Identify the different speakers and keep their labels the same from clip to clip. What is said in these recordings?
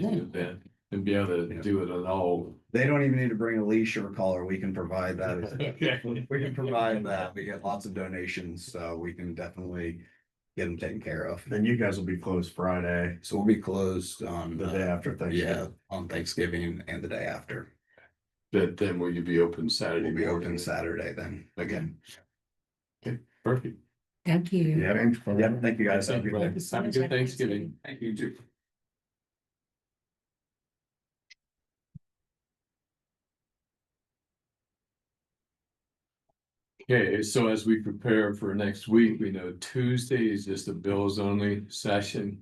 Speaker 1: do that and be able to do it at all.
Speaker 2: They don't even need to bring a leash or a collar. We can provide that. We can provide that. We get lots of donations, so we can definitely get them taken care of.
Speaker 3: Then you guys will be closed Friday,
Speaker 2: So we'll be closed on,
Speaker 3: the day
Speaker 2: uh,
Speaker 3: after
Speaker 2: yeah,
Speaker 3: Thanksgiving.
Speaker 2: on Thanksgiving and the day after.
Speaker 1: But then will you be open Saturday?
Speaker 2: We'll be
Speaker 1: morning?
Speaker 2: open Saturday then again.
Speaker 1: Perfect.
Speaker 4: Thank you.
Speaker 3: Yeah.
Speaker 2: Yeah, thank you guys. Have a
Speaker 1: Thank you,
Speaker 2: good day.
Speaker 1: brother. Have a good Thanksgiving.
Speaker 2: Thank you too.
Speaker 1: Okay, so as we prepare for next week, we know Tuesday is just a bills only session.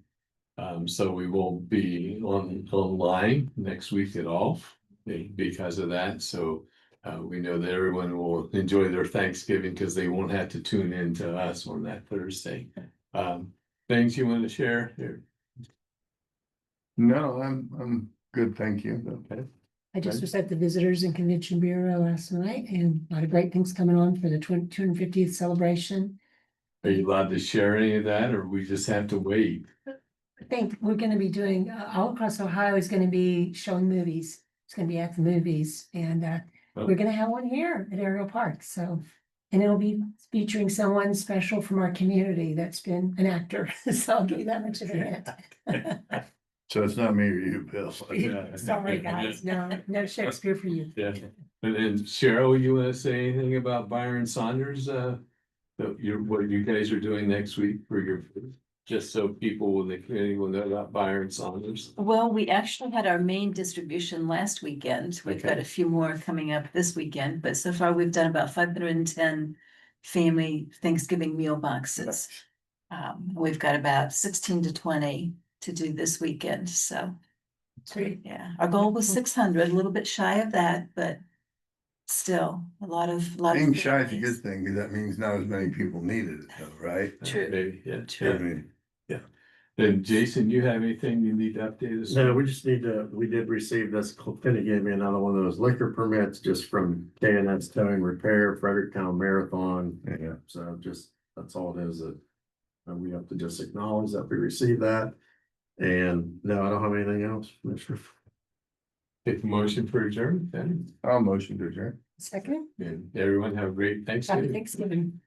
Speaker 1: Um, so we won't be on online next week at all be- because of that, so. Uh, we know that everyone will enjoy their Thanksgiving because they won't have to tune in to us on that Thursday. Um, things you want to share here?
Speaker 3: No, I'm, I'm good, thank you.
Speaker 4: I just was at the Visitors and Convention Bureau last night and a lot of great things coming on for the twen- 250th celebration.
Speaker 1: Are you allowed to share any of that or we just have to wait?
Speaker 4: I think we're gonna be doing, uh, all across Ohio is gonna be showing movies. It's gonna be at the movies and, uh,
Speaker 3: Oh.
Speaker 4: we're gonna have one here at Aerial Park, so. And it'll be featuring someone special from our community that's been an actor, so I'll give you that much of a hint.
Speaker 3: So it's not me or you, Bill.
Speaker 1: Yeah.
Speaker 4: Sorry, guys, no, no Shakespeare for you.
Speaker 1: Yeah. And then Cheryl, you wanna say anything about Byron Saunders, uh, that you, what you guys are doing next week for your, just so people in the community will know about Byron Saunders?
Speaker 5: Well, we actually had our main distribution last weekend. We've got
Speaker 1: Okay.
Speaker 5: a few more coming up this weekend, but so far we've done about five hundred and ten family Thanksgiving meal boxes. Um, we've got about sixteen to twenty to do this weekend, so
Speaker 4: Great.
Speaker 5: yeah, our goal was
Speaker 4: Mhm.
Speaker 5: six hundred, a little bit shy of that, but still a lot of, lot of.
Speaker 3: Being shy is a
Speaker 5: families.
Speaker 3: good thing, because that means not as many people needed it, though, right?
Speaker 5: True.
Speaker 1: Maybe, yeah.
Speaker 3: I
Speaker 1: Yeah.
Speaker 3: mean,
Speaker 1: And Jason, you have anything you need to update us?
Speaker 6: No, we just need to, we did receive this, Finney gave me another one of those liquor permits just from K and S Towing Repair, Fredericktown Marathon.
Speaker 3: Yeah.
Speaker 6: So just, that's all it is that. uh, we have to just acknowledge that we received that. And no, I don't have anything else, Commissioner.
Speaker 1: Take a motion for adjournment then,
Speaker 3: I'll motion to adjourn.
Speaker 4: Second,
Speaker 1: and everyone have a great Thanksgiving.
Speaker 4: happy Thanksgiving.